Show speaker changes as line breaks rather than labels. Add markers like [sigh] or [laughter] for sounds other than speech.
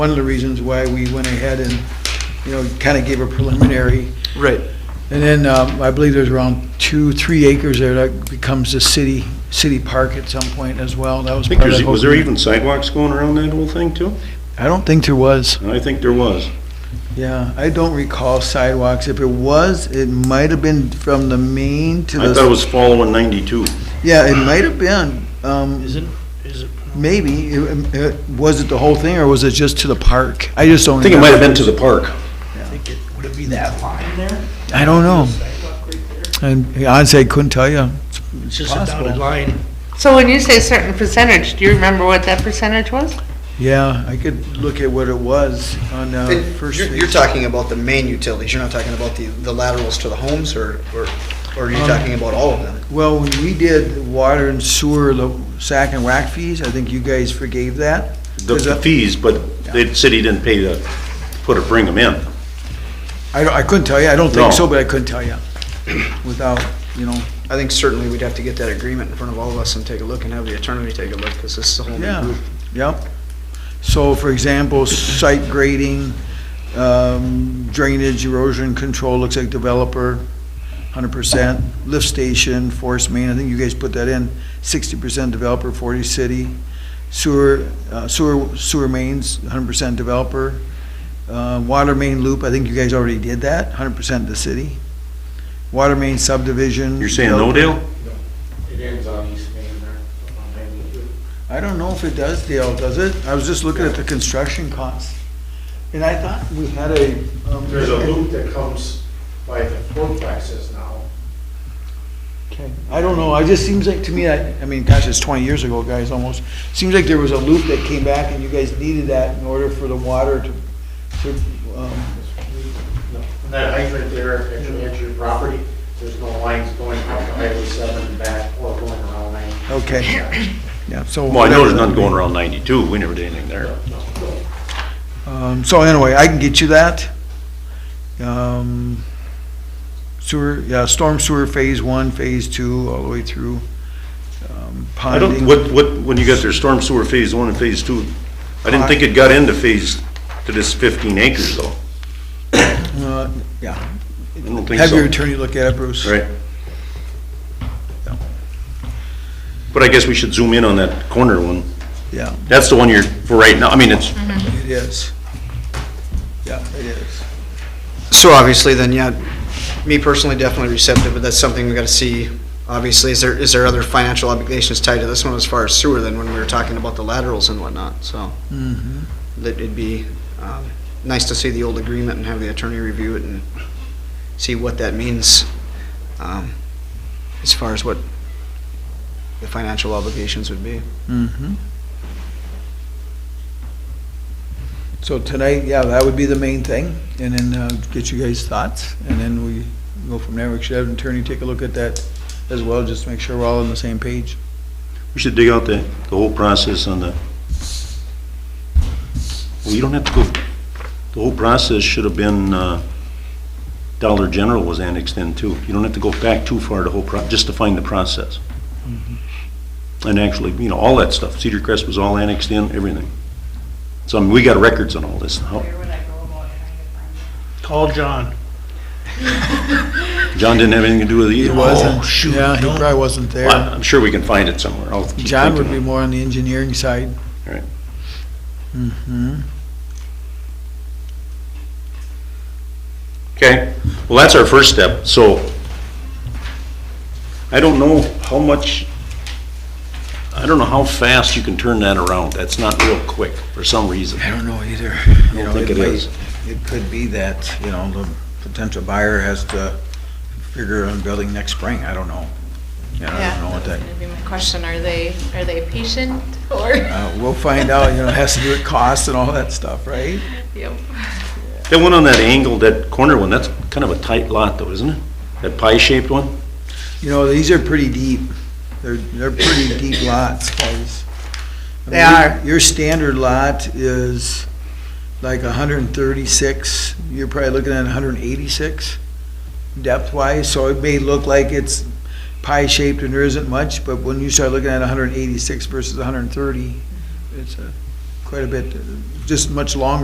one of the reasons why we went ahead and, you know, kind of gave a preliminary.
Right.
And then, um, I believe there's around two, three acres there that becomes a city, city park at some point as well. That was
I think
part of
there's,
the.
was there even sidewalks going around that whole thing too?
I don't think there was.
I think there was.
Yeah, I don't recall sidewalks. If it was, it might have been from the main to the.
I thought it was following ninety-two.
Yeah, it might have been. Um,
Is it, is it?
maybe. It, it, was it the whole thing or was it just to the park? I just don't.
I think it might have been to the park.
I think it, would it be that line there?
I don't know.
Sidewalk right there?
And honestly, I couldn't tell you.
It's just a dotted line.
So when you say certain percentage, do you remember what that percentage was?
Yeah, I could look at what it was on, uh,
It-
first.
You're,
page.
you're talking about the main utilities, you're not talking about the, the laterals to the homes, or, or, or are you
Um,
talking about all of them?
Well, when we did water and sewer, the sack and whack fees, I think you guys forgave that.
The
Is
the
that-
fees, but the city didn't pay to put or bring them in.
I don't, I couldn't tell you. I don't
No.
think so, but I couldn't tell you without, you know.
I think certainly we'd have to get that agreement in front of all of us and take a look, and have the attorney take a look, because this is a whole new
Yeah,
group.
yep. So for example, site grading, um, drainage erosion control, looks like developer, hundred percent. Lift station, force main, I think you guys put that in, sixty percent developer, forty city. Sewer, uh, sewer, sewer mains, hundred percent developer. Uh, water main loop, I think you guys already did that, hundred percent the city. Water main subdivision.
You're saying no, Dale?
It ends on East Main there, on ninety-two.
I don't know if it does, Dale, does it? I was just looking at the construction costs. And I thought we had a. um,
There's a loop that comes by the fourplexes now.
Okay. I don't know, I just seems like, to me, I, I mean, gosh, it's twenty years ago, guys, almost. Seems like there was a loop that came back and you guys needed that in order for the water to, to, um,
And that hydrant there, if you enter your property, there's no lines going up to Highway seven and back or going around nine.
okay. Yeah, so.
Well, I know there's
whatever
none
that would
going
be.
around ninety-two. We never did anything there.
Um, so anyway, I can get you that. Um, sewer, yeah, storm sewer phase one, phase two, all the way through. um,
I
ponding.
don't, what, what, when you got their storm sewer phase one and phase two, I didn't think it got into phase, to this fifteen acres though.
Uh, Yeah.
I don't think
Have your
so.
attorney look at it, Bruce.
Right. But I guess we should zoom in on that corner one.
Yeah,
That's the one you're, for right now, I mean, it's,
it is. Yeah, it is.
So obviously then, yeah, me personally definitely receptive, but that's something we gotta see. Obviously, is there, is there other financial obligations tied to this one as far as sewer than when we were talking about the laterals and whatnot, so.
Mhm.
That it'd be, um, nice to see the old agreement and have the attorney review it and see what that means. Um, as far as what the financial obligations would be.
Mhm. So tonight, yeah, that would be the main thing, and then uh, get you guys' thoughts, and then we go from there. We should have an attorney take a look at that as well, just to make sure we're all on the same page.
we should dig out the, the whole process on the, well, you don't have to go, the whole process should have been, uh, Dollar General was annexed in too. You don't have to go back too far to whole pro, just to find the process. And actually, you know, all that stuff, Cedar Crest was all annexed in, everything. So, I mean, we got records on all this. How-
Where would I go about trying to find it?
Call John.
John didn't have anything to do with it either. Oh, shoot.
Yeah, he
no.
probably wasn't there.
Well, I'm sure we can find it somewhere. I'll keep
John would
thinking.
be more on the engineering side.
Right.
Mm-hmm.
Okay, well, that's our first step, so I don't know how much, I don't know how fast you can turn that around. That's not real quick for some reason.
I don't know either. You know,
think it
might-
is.
It could be that, you know, the potential buyer has to figure on building next spring, I don't know. You know, I don't know what that,
That's gonna be my question, are they, are they patient or?
uh, we'll find out, you know, it has to do
[laughs]
with cost and all that stuff, right?
Yep.
That one on that angle, that corner one, that's kind of a tight lot though, isn't it? That pie-shaped one?
You know, these are pretty deep, they're, they're pretty deep lots, guys. I mean,
They are.
Your standard lot is like hundred and thirty-six, you're probably looking at hundred and eighty-six depth-wise, so it may look like it's pie-shaped and there isn't much, but when you start looking at hundred and eighty-six versus hundred and thirty, it's a quite a bit, just much longer